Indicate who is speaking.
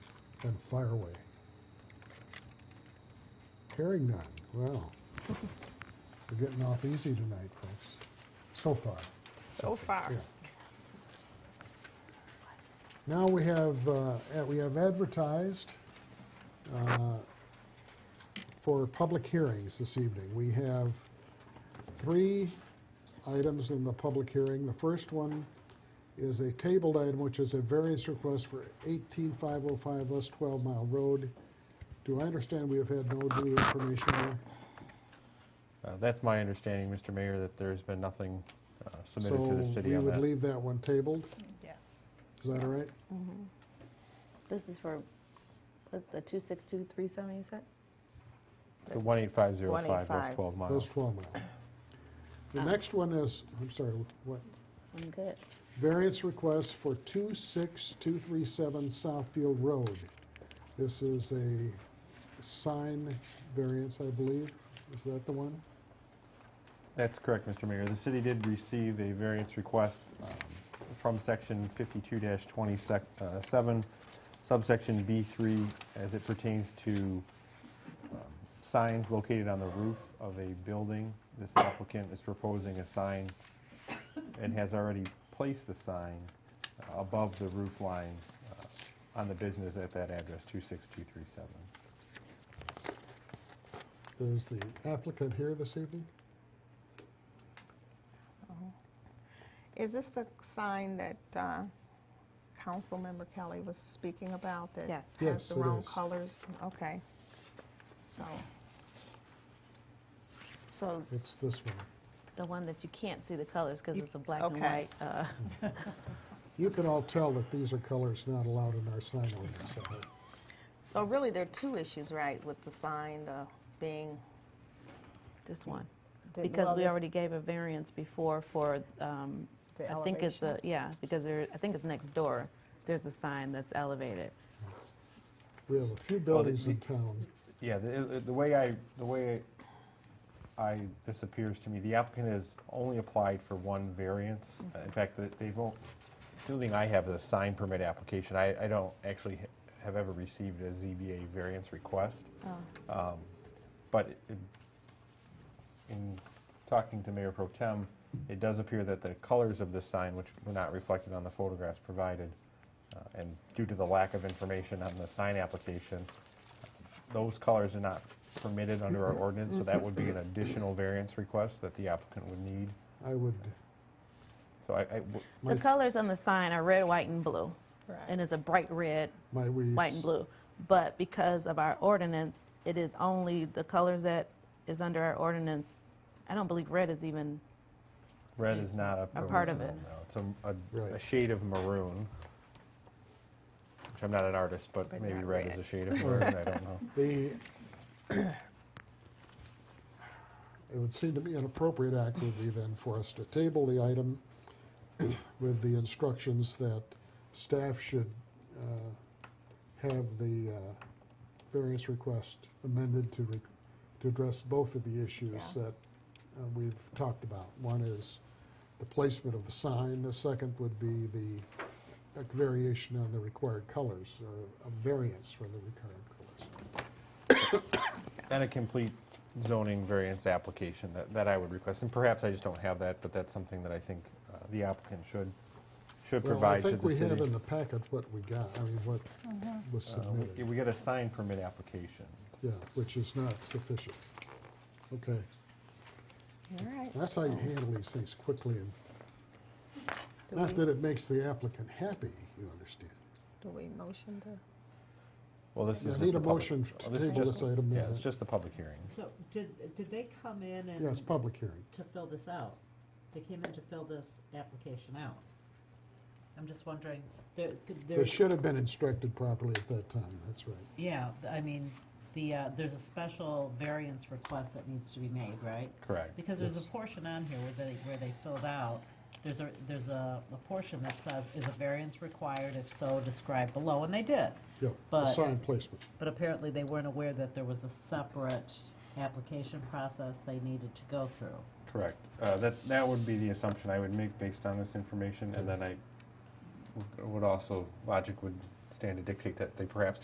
Speaker 1: and Fireway. Hearing none, well, we're getting off easy tonight, folks, so far.
Speaker 2: So far.
Speaker 1: Yeah. Now we have, uh, ad- we have advertised uh, for public hearings this evening. We have three items in the public hearing. The first one is a tabled item, which is a variance request for 18505 West 12 Mile Road. Do I understand we have had no new information there?
Speaker 3: Uh, That's my understanding, Mr. Mayor, that there's been nothing uh, submitted to the
Speaker 1: So
Speaker 3: city
Speaker 1: we
Speaker 3: on
Speaker 1: would
Speaker 3: that.
Speaker 1: leave that one tabled,
Speaker 2: Yes.
Speaker 1: is that all right?
Speaker 4: This is for, what's the 26237 you said?
Speaker 3: So 18505 West
Speaker 4: 185.
Speaker 3: 12
Speaker 1: Those
Speaker 3: miles.
Speaker 1: 12 mile. The
Speaker 4: Um,
Speaker 1: next one is, I'm sorry, what?
Speaker 4: I'm good.
Speaker 1: Variance request for 26237 Southfield Road. This is a sign variance, I believe. Is that the one?
Speaker 3: That's correct, Mr. Mayor. The city did receive a variance request um, from section 52-27 uh, subsection B3 as it pertains to um, signs located on the roof of a building. This applicant is proposing a sign and has already placed the sign uh, above the roof line uh, on the business at that address, 26237.
Speaker 1: Is the applicant here this evening?
Speaker 2: Is this the sign that uh, Councilmember Kelly was speaking about? that
Speaker 4: Yes.
Speaker 1: Yes,
Speaker 2: Has the
Speaker 1: it
Speaker 2: wrong
Speaker 1: is.
Speaker 2: colors? Okay. So, so
Speaker 1: It's this one.
Speaker 4: The one that you can't see the colors because
Speaker 2: You-
Speaker 4: it's a black and
Speaker 2: okay.
Speaker 4: white. uh,
Speaker 1: You can all tell that these are colors not allowed in our sign ordinance. I hope.
Speaker 2: So really, there are two issues, right, with the sign, the being.
Speaker 4: This one.
Speaker 2: the-
Speaker 4: Because
Speaker 2: well,
Speaker 4: we
Speaker 2: this-
Speaker 4: already gave a variance before for, um,
Speaker 2: The
Speaker 4: I think it's, a
Speaker 2: elevation.
Speaker 4: yeah, because there, I think it's next door. There's a sign that's elevated.
Speaker 1: We have a few
Speaker 3: Well, the-
Speaker 1: buildings in town.
Speaker 3: Yeah, the, the way I, the way I, this appears to me, the applicant has only applied for one variance. Uh, In fact, that they've, all- the only thing I have is a sign permit application. I, I don't actually ha- have ever received a ZBA variance request. Um, But it- it- in talking to Mayor Pro Tem, it does appear that the colors of this sign, which were not reflected on the photographs provided, uh, and due to the lack of information on the sign application, those colors are not permitted under our ordinance, so that would be an additional variance request that the applicant would need.
Speaker 1: I would,
Speaker 3: So I, I w-
Speaker 4: The
Speaker 1: might,
Speaker 4: colors on the sign are red, white, and blue.
Speaker 2: Right.
Speaker 4: And it's a bright red,
Speaker 1: might we?
Speaker 4: white and blue. But because of our ordinance, it is only the colors that is under our ordinance. I don't believe red is even,
Speaker 3: red is not a.
Speaker 4: A part of
Speaker 3: permissible,
Speaker 4: it.
Speaker 3: no. It's a- a, a
Speaker 1: Right.
Speaker 3: shade of maroon, which I'm not an artist, but
Speaker 2: But
Speaker 3: maybe
Speaker 2: not
Speaker 3: red is
Speaker 2: red.
Speaker 3: a shade of maroon, I don't know.
Speaker 1: The, it would seem to be an appropriate act would be then for us to table the item with the instructions that staff should uh, have the uh, various request amended to, re- to address both of the issues that uh, we've talked about. One is the placement of the sign, the second would be the uh, variation on the required colors, or a variance for the required colors.
Speaker 3: And a complete zoning variance application that, that I would request, and perhaps I just don't have that, but that's something that I think uh, the applicant should, should
Speaker 1: Well, I
Speaker 3: provide to
Speaker 1: think
Speaker 3: the
Speaker 1: we have in
Speaker 3: city.
Speaker 1: the packet what we got, I mean, what was
Speaker 3: Uh, we-
Speaker 1: submitted,
Speaker 3: We got a sign permit application.
Speaker 1: yeah, which is not sufficient. Okay,
Speaker 2: All right.
Speaker 1: that's how you handle these things quickly, and
Speaker 2: Do
Speaker 1: not
Speaker 2: we-
Speaker 1: that it makes the applicant happy, you understand.
Speaker 2: Do we motion to?
Speaker 3: Well, this is
Speaker 1: Yeah,
Speaker 3: just
Speaker 1: need
Speaker 3: the
Speaker 1: a
Speaker 3: public-
Speaker 1: motion to
Speaker 3: oh, this is
Speaker 1: table
Speaker 3: just-
Speaker 1: this item,
Speaker 3: Yeah,
Speaker 1: uh,
Speaker 3: it's just the public hearing.
Speaker 5: So did, did they come in and?
Speaker 1: Yes, public hearing.
Speaker 5: To fill this out? They came in to fill this application out? I'm just wondering, there, could-
Speaker 1: They
Speaker 5: there's,
Speaker 1: should have been instructed properly at that time, that's right.
Speaker 5: yeah, I mean, the, uh, there's a special variance request that needs to be made, right?
Speaker 3: Correct.
Speaker 5: Because there's a
Speaker 1: Yes.
Speaker 5: portion on here where they, where they filled out, there's a, there's a, a portion that says, is a variance required? If so, describe below, and they did.
Speaker 1: Yeah, the
Speaker 5: But-
Speaker 1: sign placement,
Speaker 5: But apparently they weren't aware that there was a separate application process they needed to go through.
Speaker 3: Correct. Uh, That, that would be the assumption I would make based on this information, and then I would- would also, logic would stand to dictate that they perhaps